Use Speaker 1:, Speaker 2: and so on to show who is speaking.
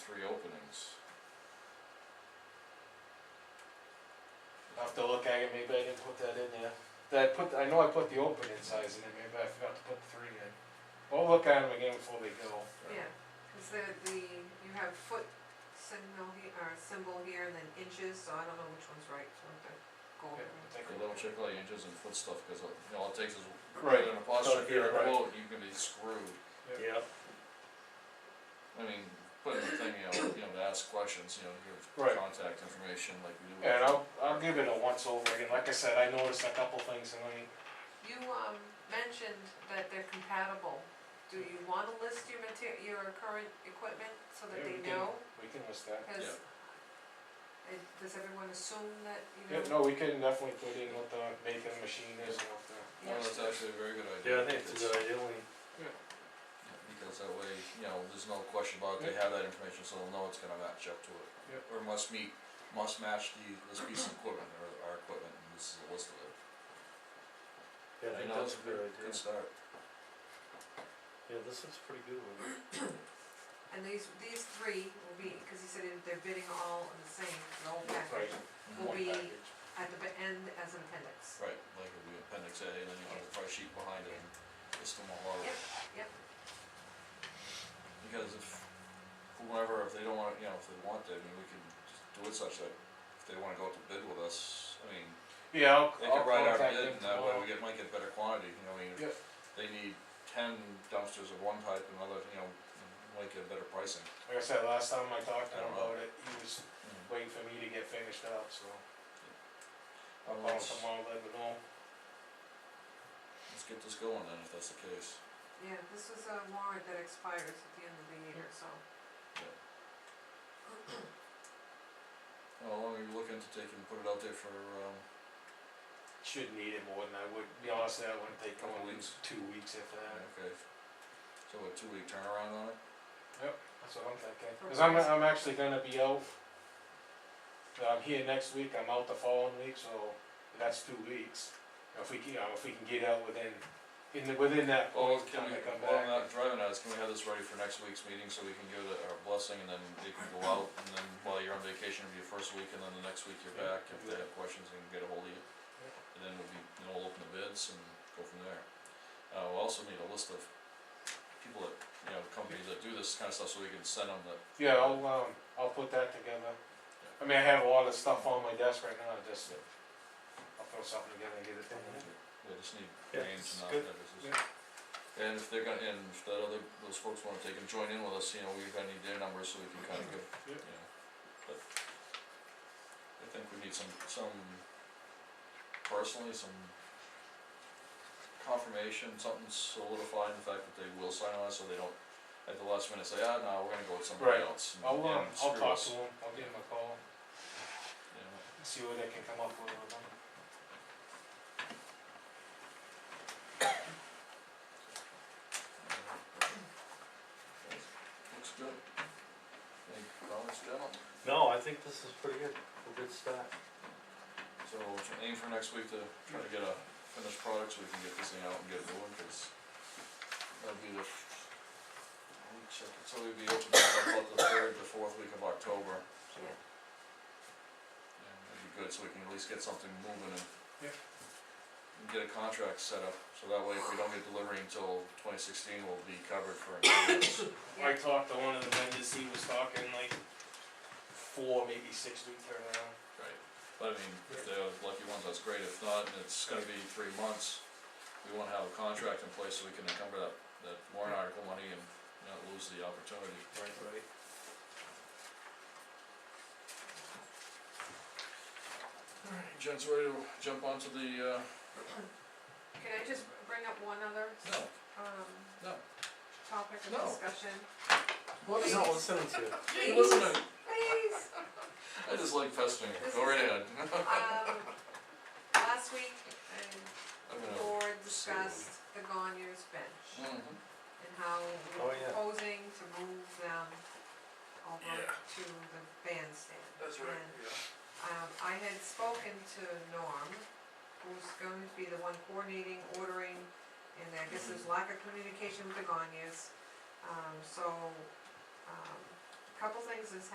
Speaker 1: three openings.
Speaker 2: I'll have to look at it, maybe I didn't put that in there. That I put, I know I put the opening size in there, maybe I forgot to put the three in. We'll look at them again before they go.
Speaker 3: Yeah, cause the, the, you have foot signal here, or symbol here, and then inches, so I don't know which one's right, so I have to go
Speaker 2: Okay,
Speaker 3: over.
Speaker 2: we'll
Speaker 3: it.
Speaker 2: take
Speaker 1: For
Speaker 2: a
Speaker 1: little
Speaker 2: look.
Speaker 1: chick-fil-A inches and foot stuff, cause all- you know, all it takes is
Speaker 2: Right,
Speaker 1: an apostrophe here,
Speaker 2: yeah,
Speaker 1: a
Speaker 2: right.
Speaker 1: quote, you can be screwed.
Speaker 2: Yep.
Speaker 1: I mean, putting the thing out, you know, to ask questions, you know,
Speaker 2: Right.
Speaker 1: give contact information like we do. with-
Speaker 2: Yeah, and I'll, I'll give it a once over again, like I said, I noticed a couple things and I,
Speaker 3: You, um, mentioned that they're compatible, do you wanna list your mater, your current equipment, so that
Speaker 2: Yeah, we
Speaker 3: they
Speaker 2: can-
Speaker 3: know?
Speaker 2: we can list that.
Speaker 3: Cause, it, does everyone assume that, you
Speaker 2: Yep,
Speaker 3: know?
Speaker 2: no, we can definitely put in what the making machine is and what the,
Speaker 1: Well, that's actually a very good idea.
Speaker 4: Yeah, I think it's a
Speaker 1: because-
Speaker 4: good idea, only,
Speaker 1: Because that way, you know, there's no question about it, they have that information, so they'll know it's gonna match up to it.
Speaker 2: Yep.
Speaker 1: Or must meet, must match the, this piece of equipment, or our equipment, and this is a list of it.
Speaker 4: yeah, I
Speaker 1: You
Speaker 4: think
Speaker 1: know,
Speaker 4: that's
Speaker 1: it's
Speaker 4: a good idea.
Speaker 1: Good start.
Speaker 4: Yeah, this looks pretty good one.
Speaker 3: And these, these three will be, cause he said they're bidding all on the same, the whole
Speaker 2: right,
Speaker 3: package, will
Speaker 2: one
Speaker 3: be
Speaker 2: package.
Speaker 3: at the b- end as an appendix.
Speaker 1: Right, like it'll be appendix A, and then you have the price sheet behind it, and list them all out.
Speaker 3: Yep, yep.
Speaker 1: Because if, whoever, if they don't wanna, you know, if they want to, I mean, we can just do it such that if they wanna go out to bid with us, I mean,
Speaker 2: Yeah, I'll,
Speaker 1: they
Speaker 2: I'll
Speaker 1: can write our
Speaker 2: contact
Speaker 1: bid,
Speaker 2: them
Speaker 1: and that way
Speaker 2: tomorrow.
Speaker 1: we get, might get better quantity, you know, I mean, if
Speaker 2: Yep.
Speaker 1: they need ten dumpsters of one type, and another, you know, might get better pricing.
Speaker 2: Like I said, last time I talked to
Speaker 1: I
Speaker 2: him
Speaker 1: don't know.
Speaker 2: about it, he was waiting for me to get finished up, so I'll call him
Speaker 1: Let's,
Speaker 2: tomorrow, let him know.
Speaker 1: let's get this going then, if that's the case.
Speaker 3: Yeah, this was a warrant that expires at the end of the year, so.
Speaker 1: Mm. How long are you looking to take and put it out there for, um,
Speaker 2: Should need it more than I would, be honest, that wouldn't take
Speaker 1: Couple
Speaker 2: more than
Speaker 1: weeks.
Speaker 2: two weeks if uh, that.
Speaker 1: okay, so a two-week turnaround on it?
Speaker 2: That's what I'm thinking, cause I'm, I'm actually gonna be out. I'm here next week, I'm out the following week, so that's two weeks. If we can, you know, if we can get out within, in the, within that
Speaker 1: Well,
Speaker 2: point,
Speaker 1: Oh, can
Speaker 2: time
Speaker 1: we,
Speaker 2: to come
Speaker 1: while I'm not
Speaker 2: back.
Speaker 1: driving at us, can we have this ready for next week's meeting so we can give it our blessing and then they can go out and then while you're on vacation, it'll be your first week and then the next week you're
Speaker 2: Yeah,
Speaker 1: back, if
Speaker 2: do
Speaker 1: they
Speaker 2: that.
Speaker 1: have questions, they can get ahold of you. And then we'll be, you know, we'll open the bids and go from there. Uh, we'll also need a list of people that, you know, companies that do this kinda stuff so we can send them the,
Speaker 2: Yeah, I'll, um, I'll put that together. I mean, I have a lot of stuff on my desk right now, just, uh, I'll throw something together and get it done.
Speaker 1: they just need
Speaker 4: Yeah,
Speaker 1: names
Speaker 4: it's
Speaker 1: and not
Speaker 4: good.
Speaker 1: addresses.
Speaker 2: Yeah.
Speaker 1: And if they're gonna, and if that other, those folks wanna take and join in with us, you know, we're gonna need their numbers so we can kinda give,
Speaker 2: Yeah.
Speaker 1: you know, but I think we need some, some, personally, some confirmation, something solidified in the fact that they will sign on, so they don't at the last minute say, ah, no, we're gonna go with somebody
Speaker 2: Right.
Speaker 1: else and
Speaker 2: I'll,
Speaker 1: and
Speaker 2: um, I'll
Speaker 1: screw
Speaker 2: talk
Speaker 1: us,"
Speaker 2: to him, I'll give him a call,
Speaker 1: you know.
Speaker 2: see what they can come up with, with him.
Speaker 1: Looks good. Any comments, gentlemen?
Speaker 4: No, I think this is pretty good, a good start.
Speaker 1: So we'll tr- aim for next week to try to get a finished product so we can get this thing out and get it going, cause that'll be the, f- let me check it, so we'd be open up about the third, the fourth week of October, so.
Speaker 3: Yeah.
Speaker 1: Yeah, that'd be good, so we can at least get something moving and
Speaker 2: Yeah.
Speaker 1: and get a contract set up, so that way if we don't get delivery until twenty sixteen, we'll be covered for improvements.
Speaker 2: I talked to one of the vendors, he was talking like four, maybe six week turnaround.
Speaker 1: Right, but I mean, if they're the lucky ones, that's great, if not, and it's gonna be three months, we wanna have a contract in place so we can encumber that, that warrant article money and not lose the opportunity.
Speaker 2: Right, right.
Speaker 1: Alright, Jen's ready to jump onto the, uh,
Speaker 3: Can I just bring up one other,
Speaker 1: no,
Speaker 3: um,
Speaker 1: no.
Speaker 3: topic of
Speaker 1: No.
Speaker 3: discussion?
Speaker 4: What is that listening to?
Speaker 1: It wasn't a,
Speaker 3: Please,
Speaker 1: I just like pestering, go right ahead.
Speaker 3: um, last week, I,
Speaker 1: I'm
Speaker 3: the
Speaker 1: gonna-
Speaker 3: board discussed the Gonyers bench
Speaker 1: Mhm.
Speaker 3: and how
Speaker 4: Oh,
Speaker 3: we're
Speaker 4: yeah.
Speaker 3: proposing to move them over
Speaker 1: Yeah.
Speaker 3: to the bandstand. And
Speaker 1: yeah.
Speaker 3: Um, I had spoken to Norm, who's going to be the one coordinating, ordering, and I guess there's lack of communication with the Gonyas. Um, so, um, couple things has